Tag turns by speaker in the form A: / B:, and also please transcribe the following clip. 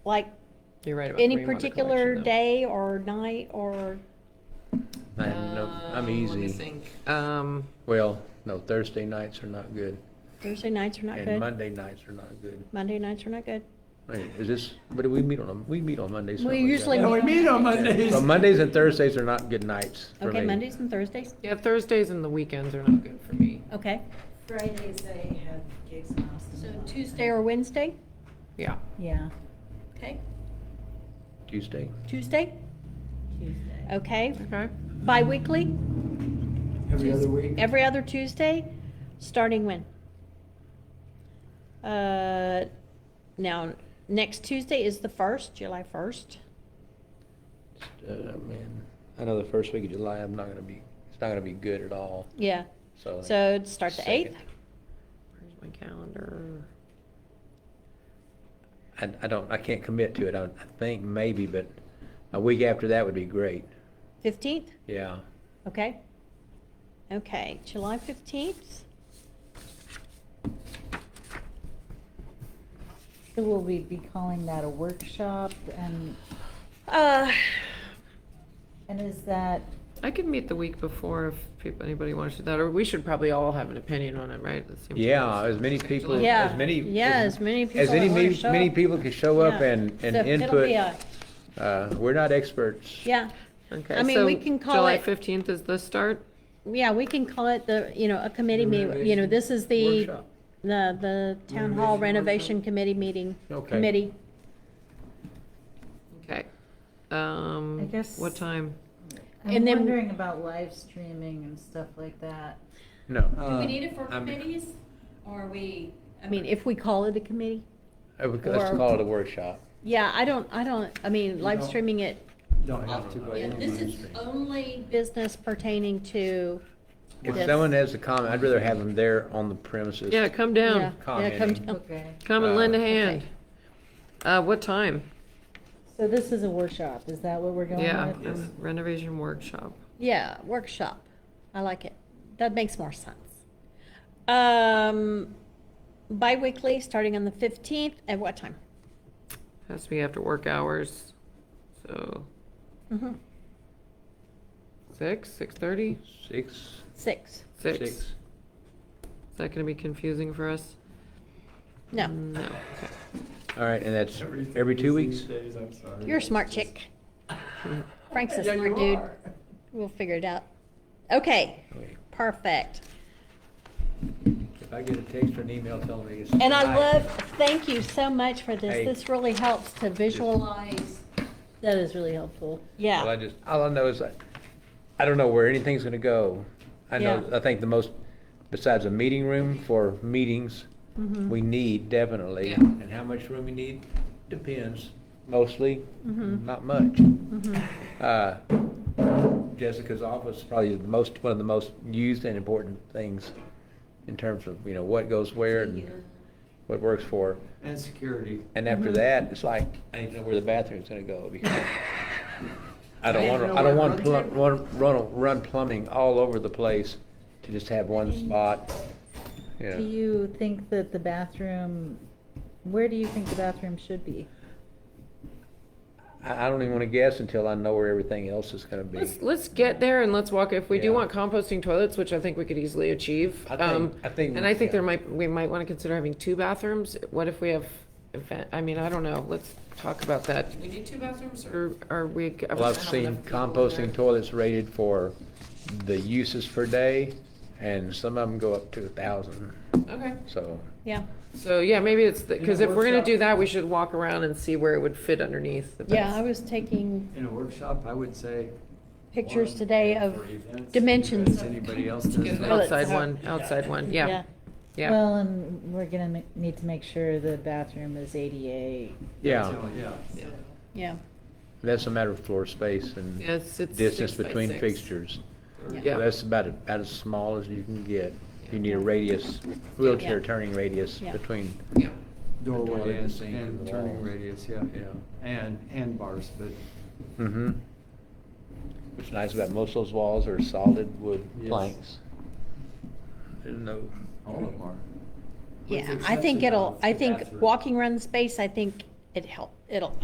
A: like
B: You're right. About
A: any
B: Fremont Collection,
A: particular
B: though.
A: day or night or,
C: I have no,
B: Um,
C: I'm
B: Let me
C: easy.
B: think. Um,
C: Well, no, Thursday nights are not good,
A: Thursday nights are not
C: and
A: good.
C: Monday nights are not good.
A: Monday nights are not good.
C: Wait, Is this, but we meet on, a- we meet on Mondays.
A: We
C: something like that.
A: usually-
D: Yeah, we meet on Mondays.
C: But Mondays and Thursdays are not good nights for me.
A: Okay, Mondays and Thursdays,
B: yeah, Thursdays and the weekends are not good for me.
A: okay.
E: Fridays, they have gigs and
A: So
E: houses.
A: Tuesday or Wednesday,
B: Yeah.
E: Yeah,
A: okay.
C: Tuesday.
A: Tuesday,
E: Tuesday.
A: okay.
B: Okay.
A: Bi-weekly,
D: Every other week.
A: every other Tuesday, starting when? Uh, now, next Tuesday is the first, July first.
C: Uh, man, I know the first week of July, I'm not gonna be, it's not gonna be good at all,
A: Yeah,
C: so. like,
A: so it'd start the eighth.
C: second.
B: Where's my calendar?
C: I, I don't, I can't commit to it. I, I think maybe, but a week after that would be great.
A: Fifteenth,
C: Yeah.
A: okay? Okay, July fifteenth,
E: So will we be calling that a workshop and,
A: uh,
E: and is that,
B: I could meet the week before if people, anybody wants to do that, or we should probably all have an opinion on it, right? That seems
C: Yeah,
B: like it's-
C: as many people,
A: Yeah.
C: as many.
A: Yeah, as many people
C: As
A: that
C: any,
A: wanna
C: me-
A: show
C: many
A: up.
C: people can show up
A: Yeah.
C: and, and
A: So It'll be a,
C: input. Uh, we're not experts.
A: yeah,
B: Okay.
A: I mean, we
B: so
A: can call
B: July
A: it-
B: fifteenth is the start.
A: yeah, we can call it the, you know, a committee meeting, you know,
D: Renovation
A: this is the,
C: workshop.
A: the, the town hall renovation
D: Renovation workshop.
A: committee meeting,
C: Okay.
A: committee.
B: Okay. Um,
E: I guess-
B: What time?
E: I'm
A: And then-
E: wondering about live streaming and stuff like that.
C: No.
D: Uh,
F: We need it for
C: Um, I'm-
F: committees, or are we?
A: I mean, if we call it a committee,
C: I would- Let's
A: Or-
C: call it a workshop.
A: yeah, I don't, I don't, I mean,
D: You
A: live
D: don't-
A: streaming it,
D: Don't have to, but.
F: Yeah, this is only,
A: business pertaining to
C: If
A: Yes.
C: someone has a comment, I'd rather have them there on the premises.
B: Yeah, come down.
A: Yeah, yeah, come
C: Commenting.
A: down.
E: Okay.
B: Come and
C: Uh,
B: lend a
C: Okay.
B: hand. Uh, what time?
E: So this is a workshop, is that what we're going
B: Yeah,
E: with?
B: um, renovation workshop.
A: Yeah, workshop. I like it. That makes more sense. Um, bi-weekly, starting on the fifteenth, at what time?
B: Has to be after work hours, so
A: Mhm.
B: six, six thirty?
C: Six.
A: Six.
B: Six. Is that gonna be confusing for us?
A: No,
B: No, okay.
C: All right, and that's every two weeks?
A: you're a smart chick. Frank's a smart dude. We'll figure it out. Okay,
C: Okay.
A: perfect.
C: If I get a text or an email telling me it's.
A: And I
C: tonight,
A: love, thank you so much for
C: Hey.
A: this. This really helps to visual,
F: lies,
E: That is really helpful.
C: Well, I
A: yeah,
C: just, all I know is, I, I don't know where anything's gonna go. I know,
A: Yeah.
C: I think the most, besides a meeting room for meetings,
A: Mm-hmm.
C: we need definitely.
B: Yeah.
C: And how much room we need depends, mostly,
A: Mm-hmm.
C: not much. Uh, Jessica's office is probably the most, one of the most used and important things in terms of, you know, what goes where and what works for.
D: And security.
C: And after that, it's like, I don't know where the bathroom's gonna go because I don't
D: I
C: want,
D: didn't know
C: I don't
D: where
C: want
D: it
C: plum,
D: runs
C: run, run, run plumbing all over the place to just have one spot. Yeah.
E: Do you think that the bathroom, where do you think the bathroom should be?
C: I, I don't even wanna guess until I know where everything else is gonna be.
B: Let's, let's get there and let's walk, if we do
C: Yeah.
B: want composting toilets, which I think we could easily achieve.
C: I think-
B: um,
C: I think we-
B: And I think there
C: yeah.
B: might, we might wanna consider having two bathrooms. What if we have event, I mean, I don't know, let's talk about that. We need two bathrooms or? Are we?
C: Well, I've seen composting toilets rated for the uses per day and some of them go up to a thousand,
B: Okay.
C: so.
A: yeah.
B: So, yeah, maybe it's, because
D: Yeah,
B: if we're gonna
D: workshop.
B: do that, we should walk around and see where it would fit underneath. the
A: Yeah,
B: best.
A: I was taking
D: In a workshop, I would say.
A: pictures
D: one
A: today
D: for
A: of
D: events,
A: dimensions
D: because
A: of-
D: Anybody else does
B: Get an
D: that?
A: Toilets.
B: Outside one, outside one, yeah, yeah.
E: Well, um, and we're gonna ma- need to make sure the bathroom is ADA.
C: Yeah,
D: Yeah.
A: Yeah,
C: that's a matter of floor space and
B: Yes, it's
C: distance
B: six by
C: between
B: six.
C: fixtures.
B: Yeah.
C: That's about, about as small as you can get. You need a radius, wheelchair
A: Yeah.
C: turning radius
A: Yeah.
C: between,
B: Yeah.
D: Doorway
C: and
D: and,
C: sink and
D: and
C: the
D: turning
C: walls.
D: radius, yeah.
C: Yeah.
D: And, and bars, but,
C: mm-hmm. What's nice about most of those walls are solid wood
D: Yes.
C: planks. There's no,
D: all of them are.
A: yeah.
D: With the
A: I think
D: exception
A: it'll,
D: of
A: I
D: the
A: think
D: bathroom.
A: walking around the space, I think it help, it'll